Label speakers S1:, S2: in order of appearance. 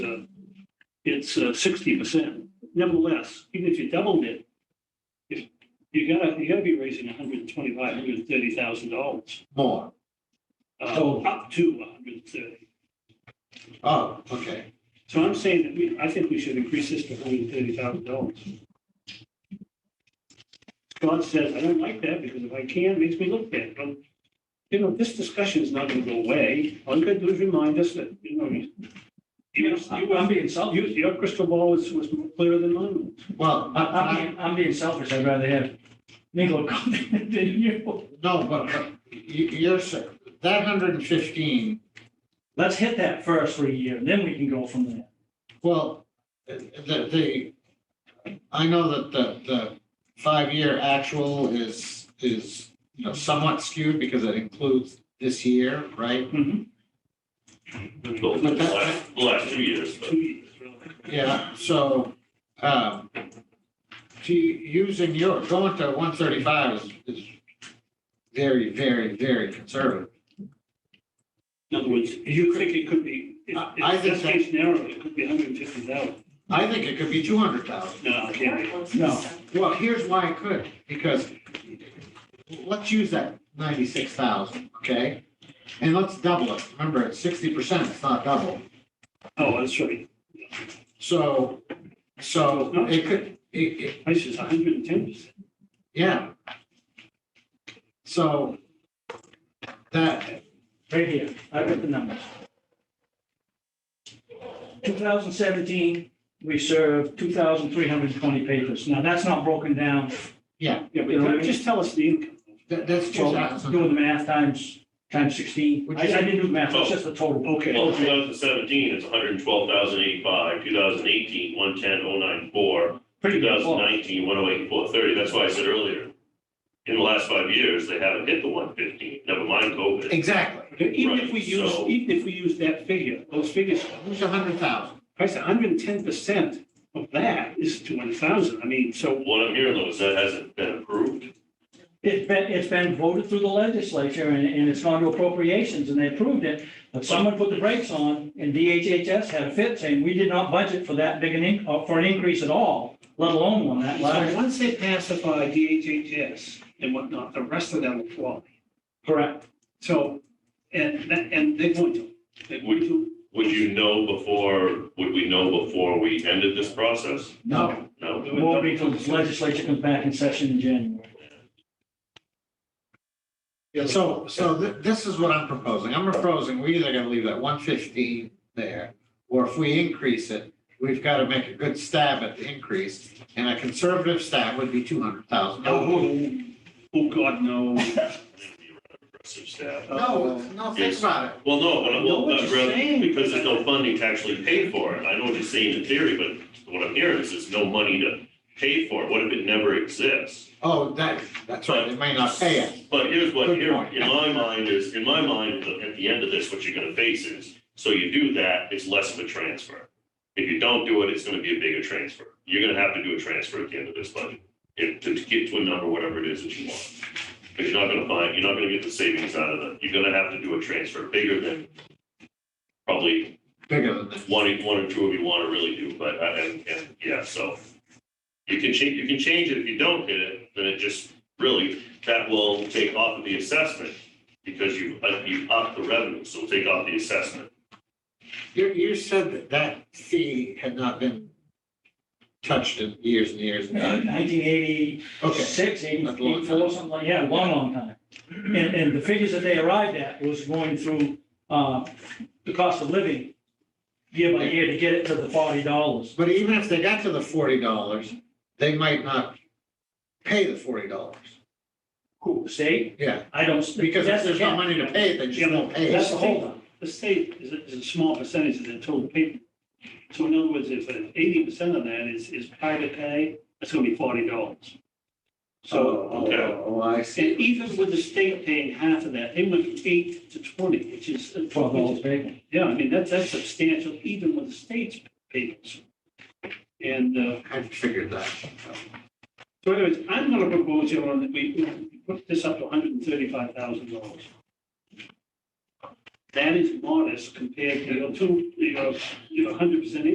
S1: it's uh, sixty percent. Nevertheless, even if you doubled it, if, you gotta, you gotta be raising a hundred and twenty-five, hundred and thirty thousand dollars,
S2: More.
S1: uh,
S2: Total.
S1: up to a hundred and thirty.
S2: Oh, okay.
S1: So I'm saying that we, I think we should increase this to hundred and thirty thousand dollars. Scott says, I don't like that because if I can, it makes me look bad, but, you know, this discussion is not gonna go away. All you gotta do is remind us that, you know, you- you,
S3: I'm I'm being selfish.
S1: you, your crystal ball was, was clearer than mine.
S2: Well, I,
S3: I'm, I'm
S2: I,
S3: being- I'm being selfish. I'd rather have Nicola come than you.
S2: no, but, but you, you're, sa- that hundred and fifteen,
S3: Let's hit that first for a year, and then we can go from there.
S2: well, the, the, I know that the, the five-year actual is, is, you know, somewhat skewed because it includes this year, right?
S4: Well, the last, the last two years, but
S1: Two years, really.
S2: Yeah, so, um, to, using your, going to one thirty-five is, is very, very, very conservative.
S1: In other words, you think it could be, if,
S2: I- I
S1: if
S2: think
S1: this case narrow, it could be hundred and fifty thousand.
S2: I think it could be two hundred thousand.
S1: No, it can't be.
S3: No.
S2: Well, here's why it could, because let's use that ninety-six thousand, okay? And let's double it. Remember, it's sixty percent, it's not double.
S1: Oh, that's right.
S2: So, so it could, it, it,
S1: I says hundred and ten percent.
S2: yeah. So that,
S3: Right here, I've got the numbers. 2017, we served 2,320 papers. Now, that's not broken down.
S2: yeah,
S1: Yeah, but just tell us the income.
S2: that, that's two
S3: Well,
S2: thousand.
S3: Doing the math times, times 16. I I didn't do the math, it's just the total.
S1: Okay.
S4: well, two thousand seventeen is 112,085, hundred and twelve thousand eighty-five, two thousand eighteen, one ten, oh nine four,
S3: Pretty
S4: two
S3: good.
S4: thousand
S3: Well,
S4: nineteen, one oh eight, four thirty. That's why I said earlier, in the last five years, they haven't hit the one fifteen, never mind COVID.
S2: Exactly.
S1: Even if we
S4: Right,
S1: use,
S4: so-
S1: even if we use that figure, those figures,
S2: Who's a hundred thousand?
S1: I said hundred and ten percent of that is two hundred thousand. I mean, so
S4: What I'm hearing though is that hasn't been approved.
S3: It's been, it's been voted through the legislature and, and it's gone to appropriations and they approved it. But someone put the brakes on and DHHS had a fit saying, we did not budget for that big an, in- uh, for an increase at all, let alone one that
S1: so
S3: large.
S1: once they pacify DHHS and whatnot, the rest of them will fall.
S3: Correct.
S1: So, and, that- and they're going to, they're going to.
S4: Would you know before, would we know before we ended this process?
S2: No,
S4: No.
S3: It won't be till the legislature comes back in session in January.
S2: so, so thi- this is what I'm proposing. I'm proposing, we either gotta leave that one fifteen there, or if we increase it, we've gotta make a good stab at the increase, and a conservative stab would be two hundred thousand.
S1: Oh, oh, God, no.
S4: Aggressive staff.
S2: No, no, think about it.
S4: Well, no, but I-
S1: know
S4: well,
S1: what
S4: not
S1: you're
S4: rather,
S1: saying.
S4: because there's no funding to actually pay for it. I know what you're saying in theory, but what I'm hearing is there's no money to pay for it. What if it never exists?
S2: Oh, that, that's right, it may not pay it.
S4: But here's what,
S2: Good
S4: here,
S2: point.
S4: in my mind is, in my mind, at the end of this, what you're gonna face is, so you do that, it's less of a transfer. If you don't do it, it's gonna be a bigger transfer. You're gonna have to do a transfer at the end of this budget, if, to to get to a number, whatever it is that you want. But you're not gonna find, you're not gonna get the savings out of it. You're gonna have to do a transfer bigger than probably
S2: Bigger than that.
S4: one, one or two of you want to really do, but, uh, and, and, yeah, so. You can change, you can change it, if you don't hit it, then it just, really, that will take off of the assessment, because you, uh, you up the revenue, so take off the assessment.
S2: You, you said that that fee had not been touched in years and years and years.
S3: 1986,
S2: Okay,
S3: 84, something like, yeah, long, long time. And, and the figures that they arrived at was going through, uh, the cost of living year by year to get it to the $40.
S2: but even if they got to the forty dollars, they might not pay the forty dollars.
S3: Cool, state?
S2: Yeah,
S3: I don't.
S2: because if
S3: that's the
S2: there's no
S3: cap.
S2: money to pay, it, they just won't pay.
S3: That's
S2: it.
S3: the holdup.
S1: The state is a, is a small percentage of the total payment. So in other words, if eighty percent of that is, is private pay, that's gonna be forty dollars. So,
S2: Oh, oh, oh, I
S1: and
S2: see.
S1: even with the state paying half of that, they went from eight to twenty, which is.
S3: Twelve dollars bacon.
S1: Yeah, I mean, that's, that's substantial, even with the state's payments. And, uh,
S2: I figured that.
S1: So anyways, I'm gonna propose, John, that we we put this up to hundred and thirty-five thousand dollars. That is modest compared to your two, your, your hundred percent